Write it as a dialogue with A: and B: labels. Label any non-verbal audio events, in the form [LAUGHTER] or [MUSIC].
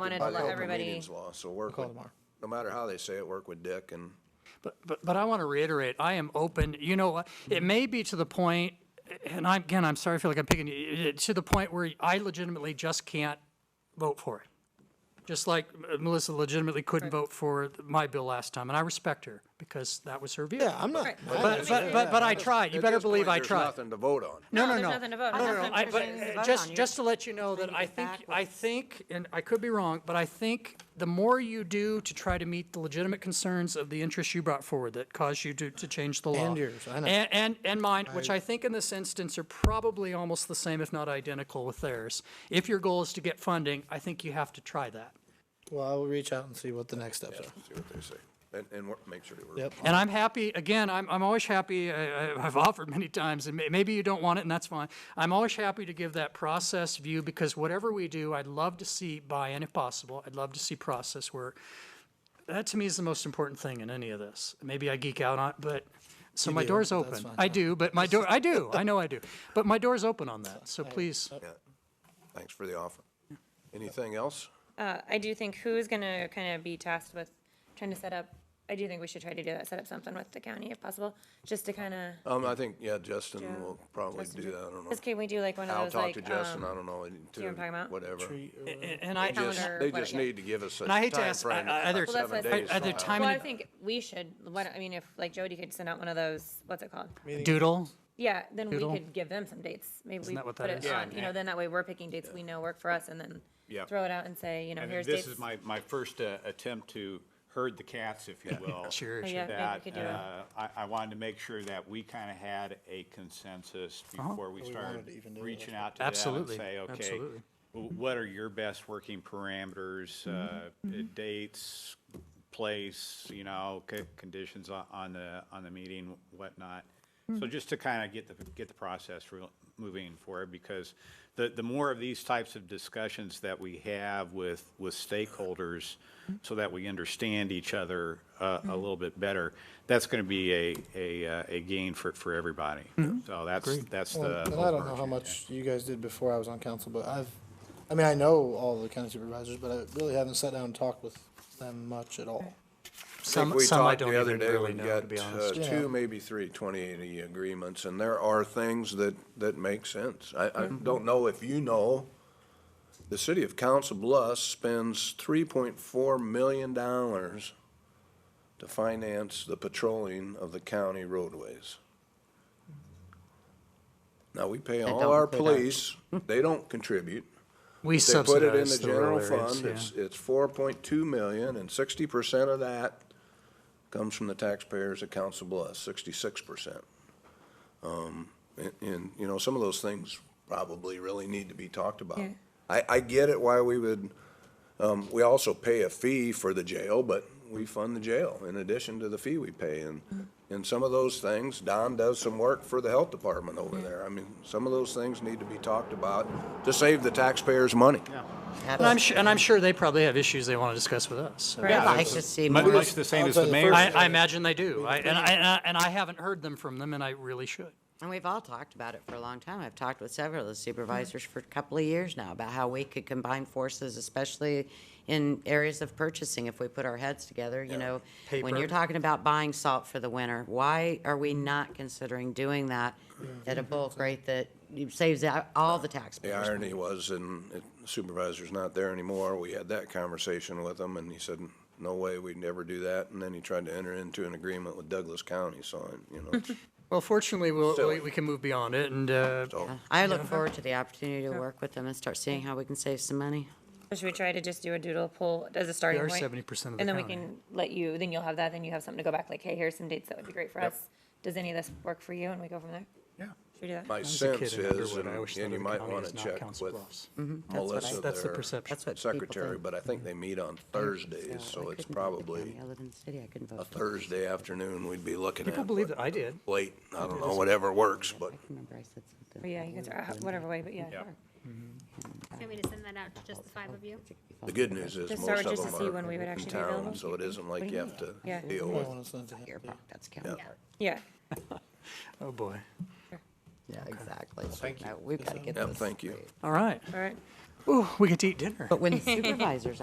A: Wanted to
B: By the
A: let
B: open
A: everybody,
B: meetings law, so work
C: Call
B: with,
C: tomorrow.
B: no matter how they say it, work with Dick and,
C: But, but, but I want to reiterate, I am open, you know, what, it may be to the point, and I'm, again, I'm sorry, I feel like I'm picking you, it- it- to the point where I legitimately just can't vote for it. Just like Melissa legitimately couldn't vote for my bill last time, and I respect her, because that was her view.
D: Yeah, I'm not.
A: Right.
D: I-
C: But, but, but, but I tried, you
B: At
C: better
B: this
C: believe
B: point,
C: I
B: There's
C: tried.
B: nothing to vote on.
C: No, no,
A: No,
C: no.
A: there's nothing to vote on.
C: No, no,
A: Nothing
C: no, I,
A: for
C: but,
A: things to
C: uh,
A: vote on.
C: just,
A: You're
C: just to let you know that
E: reading
C: I
E: it
C: think, I
E: backwards.
C: think, and I could be wrong, but I think the more you do to try to meet the legitimate concerns of the interests you brought forward that caused you to, to change the law.
D: And yours, I know.
C: And, and, and mine, which I think in this instance are probably almost the same, if not identical with theirs. If your goal is to get funding, I think you have to try that.
D: Well, I will reach out and see what the next steps are.
B: See what they say. And, and work- make sure they work.
D: Yep.
C: And I'm happy, again, I'm, I'm always happy, I, I- I've offered many times, and may- maybe you don't want it, and that's fine. I'm always happy to give that process view, because whatever we do, I'd love to see buy-in if possible. I'd love to see process work. That to me is the most important thing in any of this. Maybe I geek out on, it, but, so my
D: do,
C: door's
D: that's
C: open.
D: fine.
C: I do, but my door, I do,
D: [LAUGHS]
C: I know I do. But my door's open on that, so
D: uh,
C: please.
B: Yeah. Thanks for the offer. Anything else?
A: uh, I do think who's gonna kind of be tasked with trying to set up, I do think we should try to do that, set up something with the county if possible, just to kind of,
B: Um, I think, yeah, Justin will probably do that, I don't know.
A: just can we do like one
B: I'll
A: of those
B: talk
A: like,
B: to Justin, I
A: um,
B: don't know,
A: know what I'm talking
B: to,
A: about?
B: whatever.
C: And and I,
B: Just-
A: calendar,
B: They
A: what-
B: just
A: yeah.
B: need to give us a
C: And I hate to ask,
B: timeframe,
C: uh, other-
B: about
C: Well,
A: that's
B: seven
A: what I
B: days
C: said. Other
B: from now.
C: time-
A: well,
C: mean,
A: I think we should, what, I mean, if like Jody could send out one of those, what's it called?
C: doodle,
A: Yeah, then we
C: Doodle?
A: could give them some dates. Maybe we
C: that what
A: put
C: that
A: it
C: is?
A: on, you know, then that way we're picking dates we know work for us and then
F: Yeah.
A: throw it out and say, you know,
F: And
A: here's dates.
F: this is my, my first uh, attempt to herd the cats, if you will.
A: Oh,
C: Sure,
A: yeah, sure. maybe we
F: That,
A: could do it.
F: uh, I, I wanted to make sure that we kind of had a consensus before we started
D: wanted to even do it,
F: reaching
D: that's
F: out to them and
C: Uh-huh. Absolutely,
F: say, okay,
C: absolutely.
F: w- what are your best working parameters, uh, dates, place, you know, co- conditions on, on the, on the meeting, whatnot. So just to kind of get the, get the process real- moving forward, because the, the more of these types of discussions that we have with, with stakeholders, so that we understand each other uh, a little bit better, that's going to be a, a, uh, a gain for, for everybody. So that's, that's
D: Well,
F: the.
D: And I don't know how
F: overarching-
D: much you guys did before I was on council, but I've, I mean, I know all the county supervisors, but I really haven't sat down and talked with them much at all.
C: some,
B: we
C: some I
B: talked
C: don't
B: the other
C: even
B: day,
C: really
B: we've
C: know,
B: got
C: to be honest.
B: uh,
D: Yeah.
B: two, maybe three 2080 agreements, and there are things that, that make sense. I, I don't know if you know, the city of Council Bluffs spends 3.4 million dollars to finance the patrolling of the county roadways. Now, we pay all
E: don't
B: our
E: pay that.
B: police, they don't contribute.
C: We
B: They put it in
C: subsidize
B: the
C: the rural
B: general
C: areas,
B: fund,
C: yeah.
B: it's, it's four point two million, and sixty percent of that comes from the taxpayers at Council Bluffs, sixty-six percent. Um, and, and, you know, some of those things probably really need to be talked about.
A: Yeah.
B: I, I get it why we would, um, we also pay a fee for the jail, but we fund the jail in addition to the fee we pay, and, and some of those things, Don does some work for the health department over there. I mean, some of those things need to be talked about to save the taxpayers money.
C: And I'm sure, and I'm sure they probably have issues they want to discuss with us. so-
A: Right.
E: I'd like to see
F: Much
E: more.
F: much the same
D: I'll
F: as
D: tell
F: the
D: you
F: mayor's.
D: first-
C: I, I imagine they do. I, and, I, and I and I haven't heard them from them, and I really should.
E: And we've all talked about it for a long time. I've talked with several of the supervisors for a couple of years now about how we could combine forces, especially in areas of purchasing, if we put our heads together, you know. When
C: Paper.
E: you're talking about buying salt for the winter, why are we not considering
B: [CLEARS THROAT]
E: doing that at a bulk rate that saves out all the
B: The
E: taxpayers?
B: irony was, and it- supervisor's not there anymore, we had that conversation with him, and he said, no way, we'd never do that, and then he tried to enter into an agreement with Douglas County, so, I- you
C: [LAUGHS]
B: know,
C: Well, fortunately, we'll,
B: Still.
C: we, we can move beyond it, and uh,
B: so,
E: I look forward to the opportunity to work with them and start seeing how we can save some money.
A: So Should we try to just do a doodle poll as a starting
C: are
A: point?
C: 70% of the
A: And then we
C: county.
A: can let you, then you'll have that, then you have something to go back, like, hey, here's some dates that would be great for us. Does any of this work for you? And we go from there?
F: Yeah.
A: Should we do that?
B: my
C: was a kid
B: sense
C: in
B: is,
C: Underwood,
B: and
C: I
B: and
C: always thought
B: you
C: of the
B: might
C: county
B: wanna
C: as not
B: check
C: Council
B: with
C: Bluffs.
A: Mm-hmm.
E: what I-
B: Melissa,
C: That's the
B: their
C: perception.
E: That's what people
B: secretary,
E: think.
B: but I think they meet on
A: Mm-hmm.
B: Thursdays, so
E: I
B: it's
E: couldn't vote for the
B: probably
E: county. I live in the city. I couldn't vote
B: a
E: for it.
B: Thursday afternoon we'd be looking at.
C: people believe
B: but
C: that I did.
B: Late, I don't know, whatever works, but
E: I can remember I said something.
A: But Yeah, you guys are, uh, whatever way, but yeah.
G: Want me to send that out to just the five of you?
B: the good news is
A: Just
B: most
A: start
B: of
A: with just to see
B: them
A: when
B: are
A: we would
B: in
A: actually be available.
B: town, so it isn't like you have to
A: Yeah.
B: deal
D: I
B: with
D: wanna send it to him.
E: Your part, that's county
G: Yeah.
E: part.
A: Yeah,
C: Oh, boy.
E: Yeah, exactly. Thank you. We've got to get
B: Yep,
E: this
B: thank you.
E: straight.
C: All right.
A: all right.
C: Ooh, we get to eat dinner.
E: But when supervisors